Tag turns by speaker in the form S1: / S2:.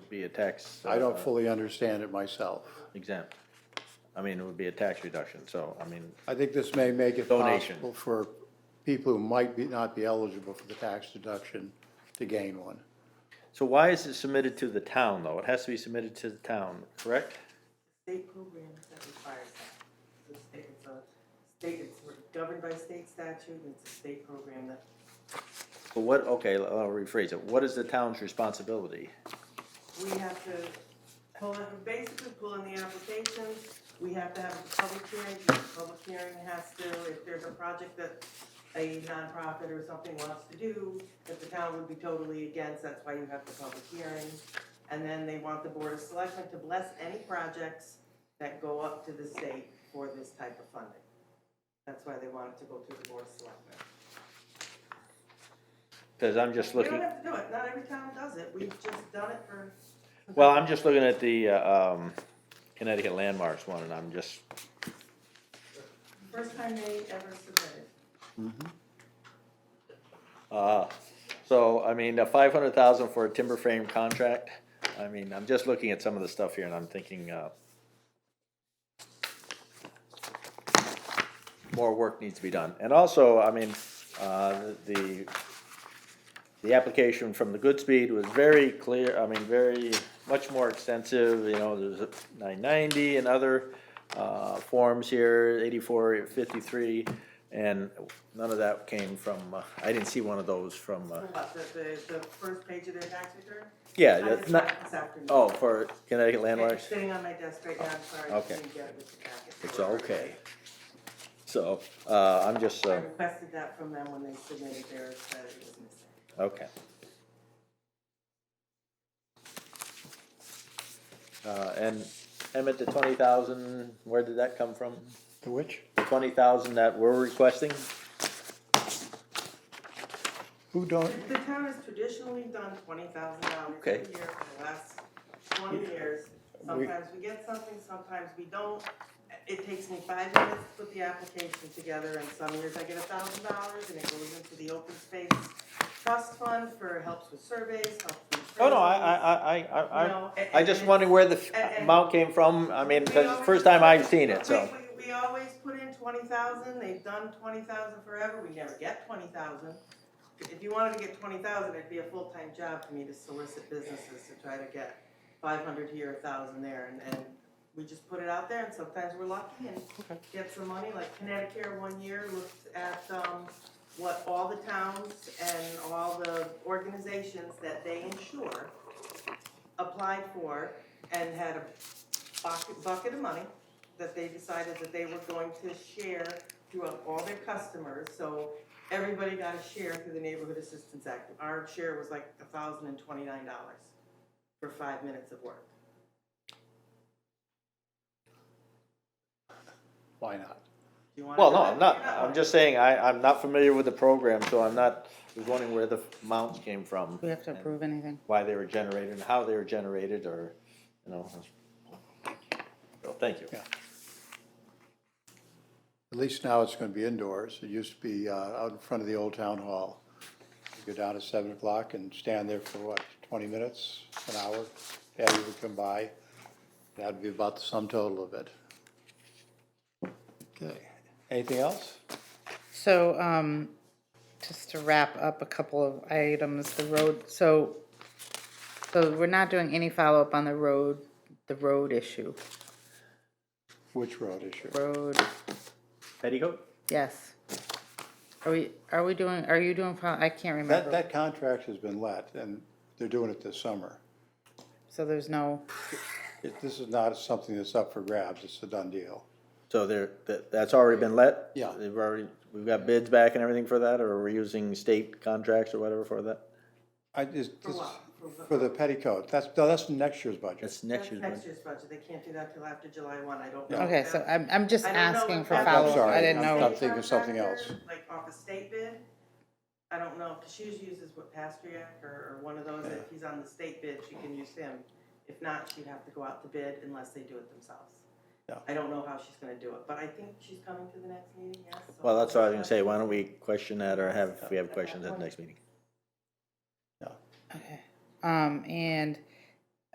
S1: be a tax.
S2: I don't
S1: uh,
S2: fully understand it myself.
S1: Exempt. I mean, it would be a tax reduction, so, I mean,
S2: I think this may make it
S1: Donation.
S2: possible for people who might be, not be eligible for the tax deduction to gain one.
S1: so why is it submitted to the town, though? It has to be submitted to the town, correct?
S3: state program that requires that. The state, it's a state, it's we're governed by state statute, and it's a state program that
S1: But what, okay, I'll I'll rephrase it. What is the town's responsibility?
S3: we have to pull in, basically pull in the applications. We have to have a public hearing, the public hearing has to, if there's a project that a nonprofit or something wants to do, that the town would be totally against, that's why you have the public hearing. And then they want the board of selectmen to bless any projects that go up to the state for this type of funding. That's why they want it to go to the board of selectmen.
S1: Because I'm just
S3: We
S1: looking.
S3: don't have to do it, not every town does it, we've just done it for.
S1: Well, I'm just looking at the, uh, um, Connecticut landmarks one, and I'm just,
S3: First time they ever submitted.
S1: uh, so, I mean, five hundred thousand for a timber frame contract. I mean, I'm just looking at some of the stuff here and I'm thinking, uh, more work needs to be done. And also, I mean, uh, the, the application from the Goodspeed was very clear, I mean, very, much more extensive, you know, there's nine ninety and other, uh, forms here, eighty-four, fifty-three, and none of that came from, uh, I didn't see one of those from, uh,
S3: What, the, the, the first page of their tax return?
S1: yeah,
S3: I
S1: that's
S3: just
S1: not,
S3: got it this afternoon.
S1: oh, for Connecticut
S3: It's
S1: landmarks,
S3: sitting on my desk right now, I'm sorry, I
S1: Okay.
S3: didn't get it with the packet.
S1: it's okay. So, uh, I'm just,
S3: I
S1: uh,
S3: requested that from them when they submitted theirs, that it was missing.
S1: okay. Uh, and Emmett, the twenty thousand, where did that come from?
S2: To which?
S1: The twenty thousand that we're requesting?
S2: Who don't,
S3: The town has traditionally done twenty thousand dollars a
S1: Okay.
S3: year for the last twenty years. Sometimes we get something, sometimes we don't. It takes me five minutes to put the application together, and some years I get a thousand dollars, and it goes into the open space trust fund for helps with surveys, helps with.
S1: Oh, no, I,
S3: appraisals,
S1: I, I,
S3: you
S1: I, I,
S3: know, a-
S1: I
S3: and
S1: just
S3: it's-
S1: wondering where the
S3: and-
S1: f-
S3: and-
S1: amount came from, I mean,
S3: we
S1: because it's the
S3: always-
S1: first time I've seen it, so.
S3: We- We, we always put in twenty thousand, they've done twenty thousand forever, we never get twenty thousand. If you wanted to get twenty thousand, it'd be a full-time job for me to solicit businesses to try to get five hundred here, a thousand there, and, and we just put it out there, and sometimes we're lucky and get some money, like Connecticut one year looked at, um, what all the towns and all the organizations that they insure applied for and had a bucket, bucket of money that they decided that they were going to share throughout all their customers, so everybody got a share through the Neighborhood Assistance Act. Our share was like thousand and twenty-nine dollars for five minutes of work.
S2: why not?
S3: Do you wanna
S1: Well,
S3: do
S1: no,
S3: it?
S1: I'm not,
S3: You're
S1: I'm just saying, I, I'm not familiar with the program, so I'm not, was wondering where the amounts came from.
S4: We have to
S1: and
S4: approve anything.
S1: Why they were generated, and how they were generated, or, you know. Well, Thank you.
S2: Yeah. At least now it's gonna be indoors. It used to be, uh, out in front of the old town hall. You Go down at seven o'clock and stand there for what, twenty minutes, an hour? Patty would come by. That'd be about the sum total of it. Okay, anything else?
S4: So, um, just to wrap up a couple of items, the road, so, so we're not doing any follow-up on the road, the road issue,
S2: Which road issue?
S4: road,
S1: Petticoat?
S4: yes. Are we, are we doing, are you doing, fol- I can't
S2: That,
S4: remember,
S2: that contract has been let, and they're doing it this summer.
S4: so there's no,
S2: It- This is not something that's up for grabs, it's a done deal.
S1: So there, that, that's already been let?
S2: Yeah.
S1: They've already, we've got bids back and everything for that, or we're using state contracts or whatever for that?
S2: I just,
S3: For
S2: this-
S3: what? For-
S2: for the petticoat, that's, no, that's next year's budget.
S1: That's next
S3: That's
S1: year's
S3: next
S1: budget.
S3: year's budget, they can't do that till after July one, I don't know. if
S4: okay,
S3: that-
S4: so I'm, I'm just
S3: I don't know
S4: asking
S3: if
S4: for
S3: that's-
S4: follow-up,
S2: sorry,
S4: I didn't
S2: I'm-
S4: know.
S2: I'm thinking of something else.
S3: Like off a state bid, I don't know, cause she usually uses what Pastriac or, or one of those, if he's on the state bid, she can use him. If not, she'd have to go out to bid unless they do it themselves.
S2: Yeah.
S3: I don't know how she's gonna do it, but I think she's coming to the next meeting, yes. so-
S1: Well, that's what I was gonna say, why don't we question that, or have, if we have questions at the next meeting?
S4: Um, and